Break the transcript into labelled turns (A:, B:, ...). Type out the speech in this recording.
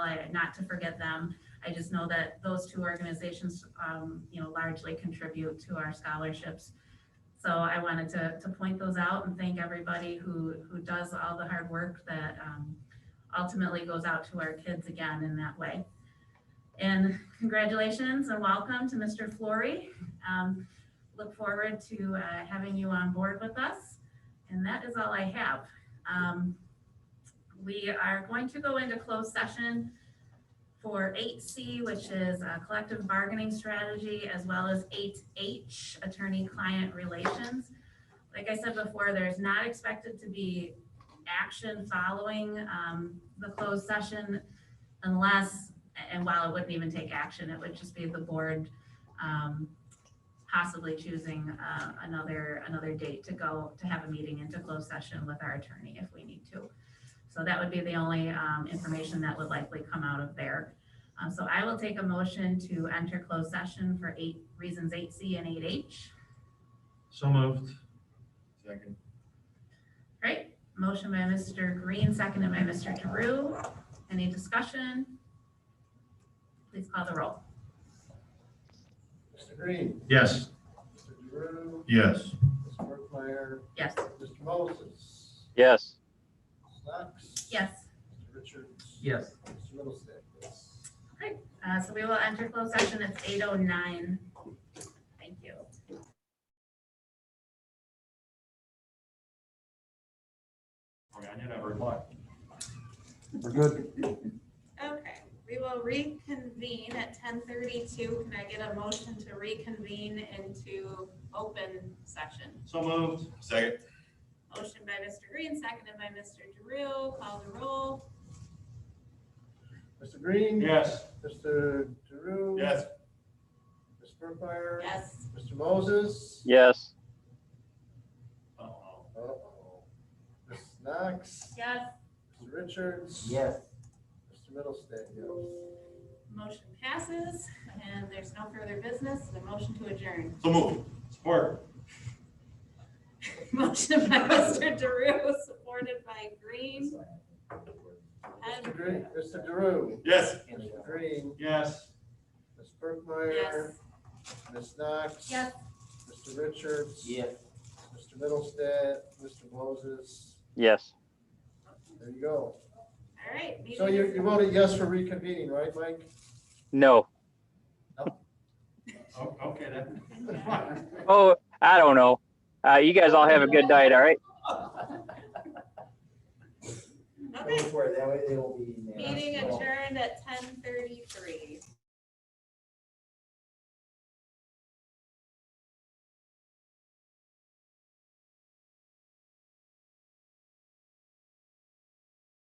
A: I- not to forget them. I just know that those two organizations, um, you know, largely contribute to our scholarships. So I wanted to, to point those out and thank everybody who, who does all the hard work that, um, ultimately goes out to our kids again in that way. And congratulations and welcome to Mr. Flory. Um, look forward to, uh, having you on board with us. And that is all I have. Um, we are going to go into closed session for eight C, which is uh, collective bargaining strategy, as well as eight H, attorney-client relations. Like I said before, there's not expected to be action following um, the closed session unless, and while it wouldn't even take action, it would just be the board um, possibly choosing uh, another, another date to go, to have a meeting into closed session with our attorney if we need to. So that would be the only um, information that would likely come out of there. Uh, So I will take a motion to enter closed session for eight, reasons eight C and eight H.
B: So moved.
C: Second.
A: Right? Motion by Mr. Green, seconded by Mr. Drew. Any discussion? Please call the roll.
C: Mr. Green,
B: Yes.
C: Mr. Drew,
B: Yes.
C: Ms. Workmeyer,
A: Yes,
C: Mr. Moses,
D: Yes.
C: Ms. Knox.
A: yes.
C: Mr. Richards.
B: Yes.
C: Mr. Middlestate. Yes.
A: Uh, So we will enter closed session. It's eight oh nine. Thank you.
C: We're good.
A: Okay, we will reconvene at ten thirty-two. Can I get a motion to reconvene into open session?
B: So moved.
C: Second.
A: Motion by Mr. Green, seconded by Mr. Drew. Call the roll.
C: Mr. Green.
B: Yes.
C: Mr. Drew.
B: Yes.
C: Ms. Workmeyer.
A: Yes.
C: Mr. Moses.
D: Yes.
B: Oh, Uh-oh.
C: Uh-oh. Ms. Knox.
A: Yes.
C: Mr. Richards.
E: Yes.
C: Mr. Middlestate. Yes.
A: Motion passes and there's no further business. The motion to adjourn.
B: So moved. Support.
A: Motion by Mr. Drew, supported by Green.
C: Mr.
A: And
C: Green, Mr. Drew.
B: Yes.
C: Mr. Green,
B: Yes.
C: Ms. Workmeyer.
A: yes,
C: Ms. Knox.
A: yes,
C: Mr. Richards.
E: Yes.
C: Mr. Middlestate, Mr. Moses,
D: Yes.
C: there you go.
A: all right.
C: So
A: meeting
C: you,
A: is-
C: you voted yes for reconvening, right, Mike?
D: No.
B: O- Okay, then.
D: Oh, I don't know. Uh, you guys all have a good night. All right.
E: Go
A: Okay,
E: for it, that way they will be. in there.
A: meeting adjourned at ten thirty-three.